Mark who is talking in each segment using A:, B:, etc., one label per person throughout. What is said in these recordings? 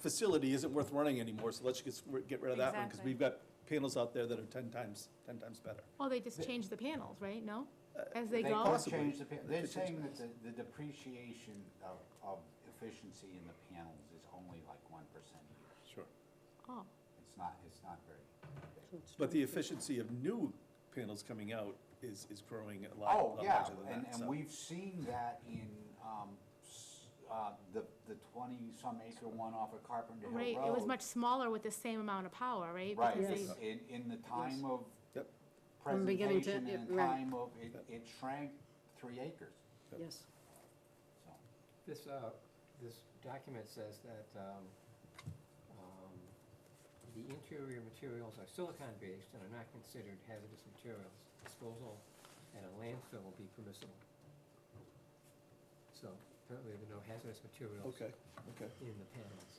A: facility isn't worth running anymore, so let's just get rid of that one, because
B: Exactly.
A: we've got panels out there that are ten times, ten times better.
B: Well, they just
C: They-
B: change the panels, right? No?
D: Uh,
B: As
C: They
B: they go?
C: could
A: possibly
C: change the, pa-
A: could
C: they're
A: change
C: saying
A: that.
C: that the the depreciation of, of efficiency in the panels is only like one percent a year.
A: Sure.
B: Oh,
C: It's not, it's not very big.
A: But the efficiency of new panels coming out is, is growing a lot,
C: Oh,
A: lot
C: yeah,
A: larger than
C: and,
A: that,
C: and
A: so.
C: we've seen that in, um, s- uh, the, the twenty-some acre one off of Carpenter Hill
B: right,
C: Road.
B: it was much smaller with the same amount of power, right?
C: Right,
B: Because
E: Yes.
B: they-
C: in, in the time of
A: Yep.
E: From beginning to-
C: presentation and the
E: yeah, right.
C: time of, it, it shrank three acres,
E: Yes.
C: so.
D: This, uh, this document says that, um, um, the interior materials are silicon-based and are not considered hazardous materials. Disposal at a landfill will be permissible. So apparently there are no hazardous materials
A: Okay, okay.
D: in the panels.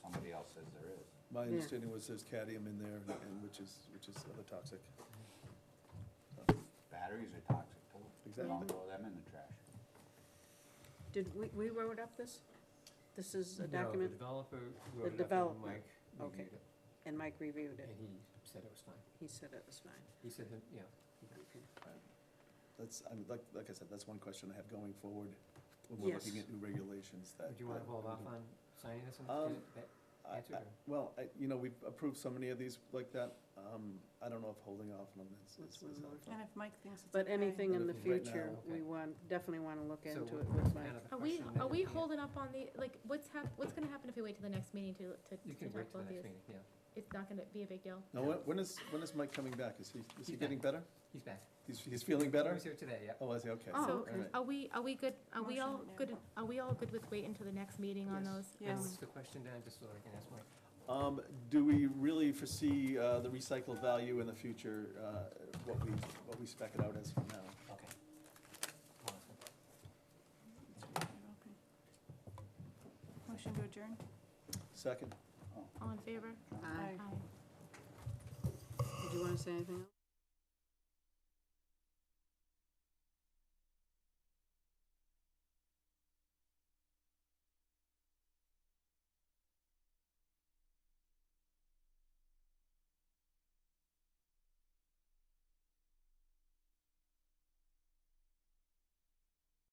C: Somebody else says there is.
A: My
E: Yeah.
A: understanding was there's cadmium in there, and- and which is, which is other toxic.
C: Batteries are toxic too.
A: Exactly.
C: Don't throw them in the trash.
E: Did, we, we wrote up this? This is a
D: No,
E: document,
D: the developer wrote it up
E: developer,
D: and Mike
E: okay.
D: reviewed it,
E: and Mike reviewed
D: and
E: it.
D: he said it was fine.
E: He said it was fine.
D: He said that, yeah,
E: Okay.
A: Uh, That's, I mean, like, like I said, that's one question I have going forward when we're looking
E: Yes.
A: at new regulations that.
D: would you wanna
A: that
D: hold
A: we
D: off
A: can-
D: on signing this and
A: uh, Um,
D: get it back
A: I-
D: answered,
A: I-
D: or-
A: Well, I, you know, we've approved so many of these like that, um, I don't know if holding off on them is,
E: Let's
A: is- is
E: move on.
A: helpful.
F: And if Mike thinks it's okay.
E: But anything in the
A: Anything right
E: future,
A: now,
E: we
D: okay.
E: want, definitely want to look
D: So
E: into
D: what-
E: it with
D: what's kind
E: Mike.
D: of the
B: Are we,
D: question that
B: are
D: at
B: we
D: the end-
B: holding up on the, like, what's hap, what's gonna happen if we wait till the next meeting to,
D: You
B: to- to
D: can
B: talk
D: wait till
B: about
D: the
B: these?
D: next meeting, yeah.
B: It's not gonna be a big deal.
A: Now, when, when is, when is Mike coming back? Is he, is he
D: He's
A: getting
D: back.
A: better?
D: He's back.
A: He's, he's feeling
D: He
A: better?
D: was here today, yeah.
A: Oh, is he? Okay.
E: Oh,
B: So,
E: okay.
B: are we, are we good, are we all
F: Motion, yeah.
B: good, are we all good with waiting till the next meeting on
D: Yes.
B: those?
D: And
F: Yes.
B: Um,
D: what's the question, Dan, just so I can ask Mike?
A: Um, do we really foresee, uh, the recycled value in the future, uh, what we, what we spec it out as from now?
D: Okay. Awesome.
F: Okay. Motion to adjourn?
A: Second?
B: All in favor?
E: Aye.
B: Aye.
E: Did you want to say anything else?